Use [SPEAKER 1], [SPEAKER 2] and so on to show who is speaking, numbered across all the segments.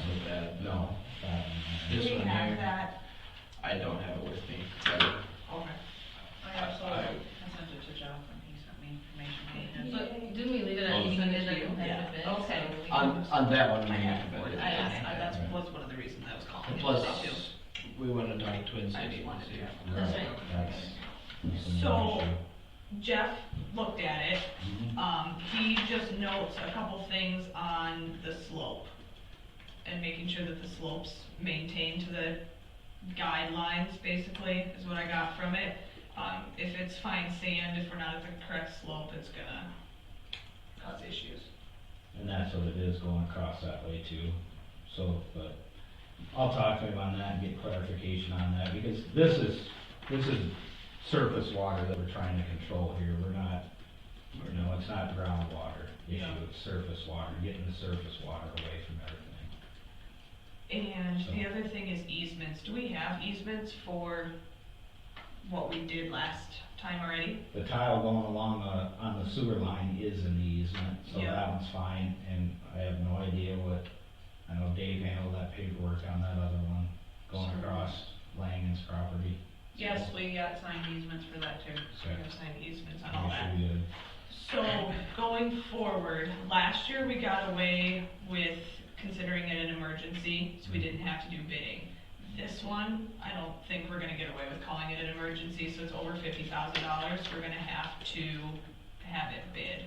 [SPEAKER 1] Um,
[SPEAKER 2] have
[SPEAKER 3] here.
[SPEAKER 2] that?
[SPEAKER 3] I don't have it with me. but
[SPEAKER 2] Okay. I also sent it to Jeff and he sent me information.
[SPEAKER 4] But didn't we leave it at
[SPEAKER 3] Oh.
[SPEAKER 4] included a
[SPEAKER 2] Yeah.
[SPEAKER 4] competitive bid?
[SPEAKER 2] Okay.
[SPEAKER 4] so we can-
[SPEAKER 3] On, on that one, we have
[SPEAKER 2] I
[SPEAKER 3] it.
[SPEAKER 2] asked, I- that's, that's one of the reasons I was calling. you
[SPEAKER 3] Plus,
[SPEAKER 2] about too.
[SPEAKER 3] we went to talk to Twin
[SPEAKER 2] I
[SPEAKER 3] Cities
[SPEAKER 2] just
[SPEAKER 3] and
[SPEAKER 2] wanted
[SPEAKER 3] see.
[SPEAKER 2] to.
[SPEAKER 4] That's
[SPEAKER 1] Right,
[SPEAKER 4] right.
[SPEAKER 1] that's-
[SPEAKER 2] So- Jeff looked at it, um, he just notes a couple things on the slope and making sure that the slopes maintain to the guidelines, basically, is what I got from it. Um, if it's fine sand, if we're not at the correct slope, it's gonna cause issues.
[SPEAKER 1] And that's what it is going across that way too, so, but I'll talk to him on that and get clarification on that, because this is, this is surface water that we're trying to control here, we're not, you know, it's not groundwater
[SPEAKER 2] Yeah.
[SPEAKER 1] issue, it's surface water, getting the surface water away from everything.
[SPEAKER 2] And the other thing is easements, do we have easements for what we did last time already?
[SPEAKER 1] The tile going along the, on the sewer line is an easement, so
[SPEAKER 2] Yeah.
[SPEAKER 1] that one's fine, and I have no idea what, I know Dave handled that paperwork on that other one, going
[SPEAKER 2] Sure.
[SPEAKER 1] across Langen's property.
[SPEAKER 2] Yes, we got signed easements for that too, we
[SPEAKER 1] Okay.
[SPEAKER 2] have signed easements on all that.
[SPEAKER 1] Make sure you-
[SPEAKER 2] So, going forward, last year we got away with considering it an emergency, so we didn't have to do bidding. This one, I don't think we're gonna get away with calling it an emergency, so it's over fifty thousand dollars, we're gonna have to have it bid. As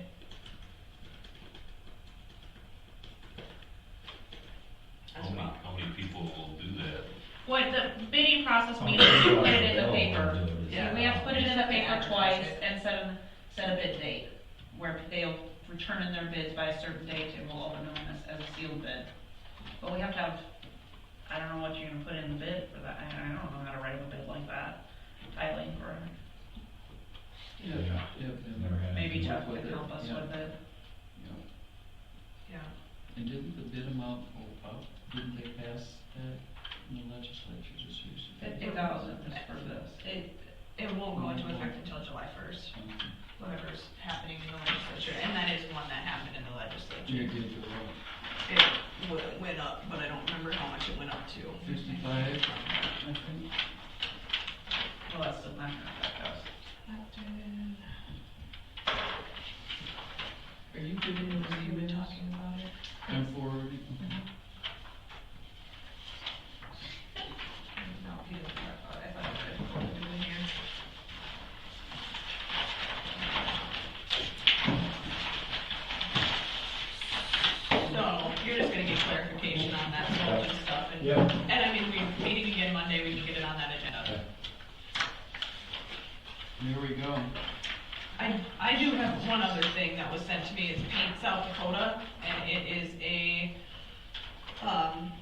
[SPEAKER 5] How
[SPEAKER 6] Oh,
[SPEAKER 5] many,
[SPEAKER 2] well.
[SPEAKER 5] how many people will do that?
[SPEAKER 6] What the bidding process means is you put it in the paper.
[SPEAKER 2] Yeah.
[SPEAKER 6] We have to put it in the paper
[SPEAKER 2] Yeah.
[SPEAKER 6] twice and set a, set a bid date, where they'll return in their bids by a certain date and we'll open them as, as a sealed bid. But we have to have, I don't know what you're gonna put in the bid for that, I, I don't know how to write a bid like that, tiling for,
[SPEAKER 1] Yeah, yeah, never had
[SPEAKER 6] maybe
[SPEAKER 1] anything.
[SPEAKER 6] Jeff can help us with it.
[SPEAKER 2] Yeah,
[SPEAKER 7] And didn't the bid amount go up? Didn't they pass that in the legislature just recently?
[SPEAKER 6] Fifty thousand is
[SPEAKER 7] Just
[SPEAKER 6] for this. It,
[SPEAKER 2] it won't go into effect until July first, whatever's happening in the legislature, and that is one that happened in the legislature.
[SPEAKER 7] You did go up
[SPEAKER 2] It w- went up, but I don't remember how much it went up to.
[SPEAKER 7] fifty-five, I think.
[SPEAKER 6] well, that's still not gonna affect us.
[SPEAKER 7] Are you giving those
[SPEAKER 2] We've been
[SPEAKER 7] emails?
[SPEAKER 2] talking about it.
[SPEAKER 7] I'm forwarding.
[SPEAKER 2] No, he didn't talk about it. uh, I thought it was good. It was in here. So, you're just gonna get clarification on that whole stuff and,
[SPEAKER 1] Yeah.
[SPEAKER 2] and I mean, we're meeting again Monday, we can get it on that agenda.
[SPEAKER 7] There we go.
[SPEAKER 2] I, I do have one other thing that was sent to me, it's Paint South Dakota, and it is a, um,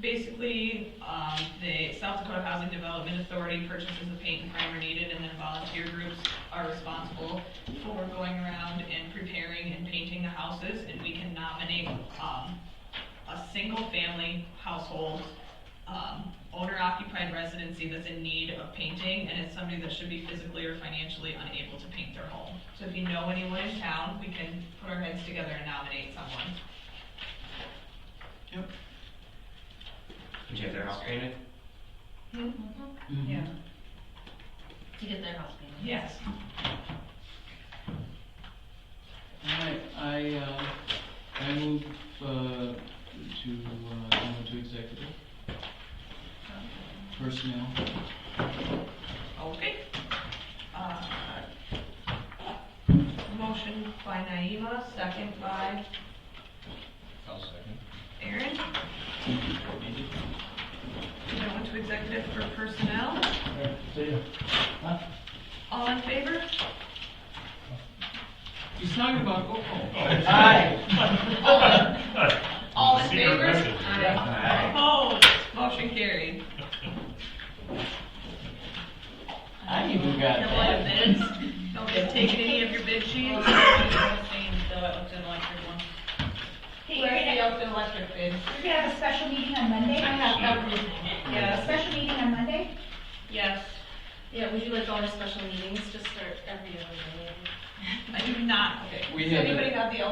[SPEAKER 2] basically, um, the South Dakota Housing Development Authority purchases the paint and primer needed, and then volunteer groups are responsible for going around and preparing and painting the houses, and we can nominate, um, a single-family household um, owner occupied residency that's in need of painting and it's somebody that should be physically or financially unable to paint their home. So if you know anyone in town, we can put our heads together and nominate someone.
[SPEAKER 3] Did you have their house painted?
[SPEAKER 4] Mhm.
[SPEAKER 7] Mm-hmm.
[SPEAKER 6] Yeah.
[SPEAKER 4] To get their house painted.
[SPEAKER 2] Yes.
[SPEAKER 7] Alright, I, uh, I move, uh, to, uh, go into executive. Personnel.
[SPEAKER 2] Okay. Uh, Motion by Naima, second by
[SPEAKER 3] I'll second.
[SPEAKER 2] Aaron. We went to executive for personnel.
[SPEAKER 1] Alright, See ya.
[SPEAKER 2] All in favor?
[SPEAKER 7] He's talking about Coco.
[SPEAKER 2] All in favor?
[SPEAKER 3] Aye.
[SPEAKER 2] Opposed? Motion carried.
[SPEAKER 7] I even got
[SPEAKER 6] Your line of bids?
[SPEAKER 2] Don't get taken any of your bid sheets.
[SPEAKER 8] Hey, you're gonna,
[SPEAKER 6] electric bid?
[SPEAKER 8] you're gonna have a special meeting on Monday?
[SPEAKER 4] I have everything.
[SPEAKER 8] Yeah, a special meeting on Monday?
[SPEAKER 6] Yes.
[SPEAKER 4] Yeah, we do like all our special meetings, just start every other day.
[SPEAKER 2] I do not, okay.
[SPEAKER 7] We
[SPEAKER 2] Has
[SPEAKER 7] have a-
[SPEAKER 2] Anybody got the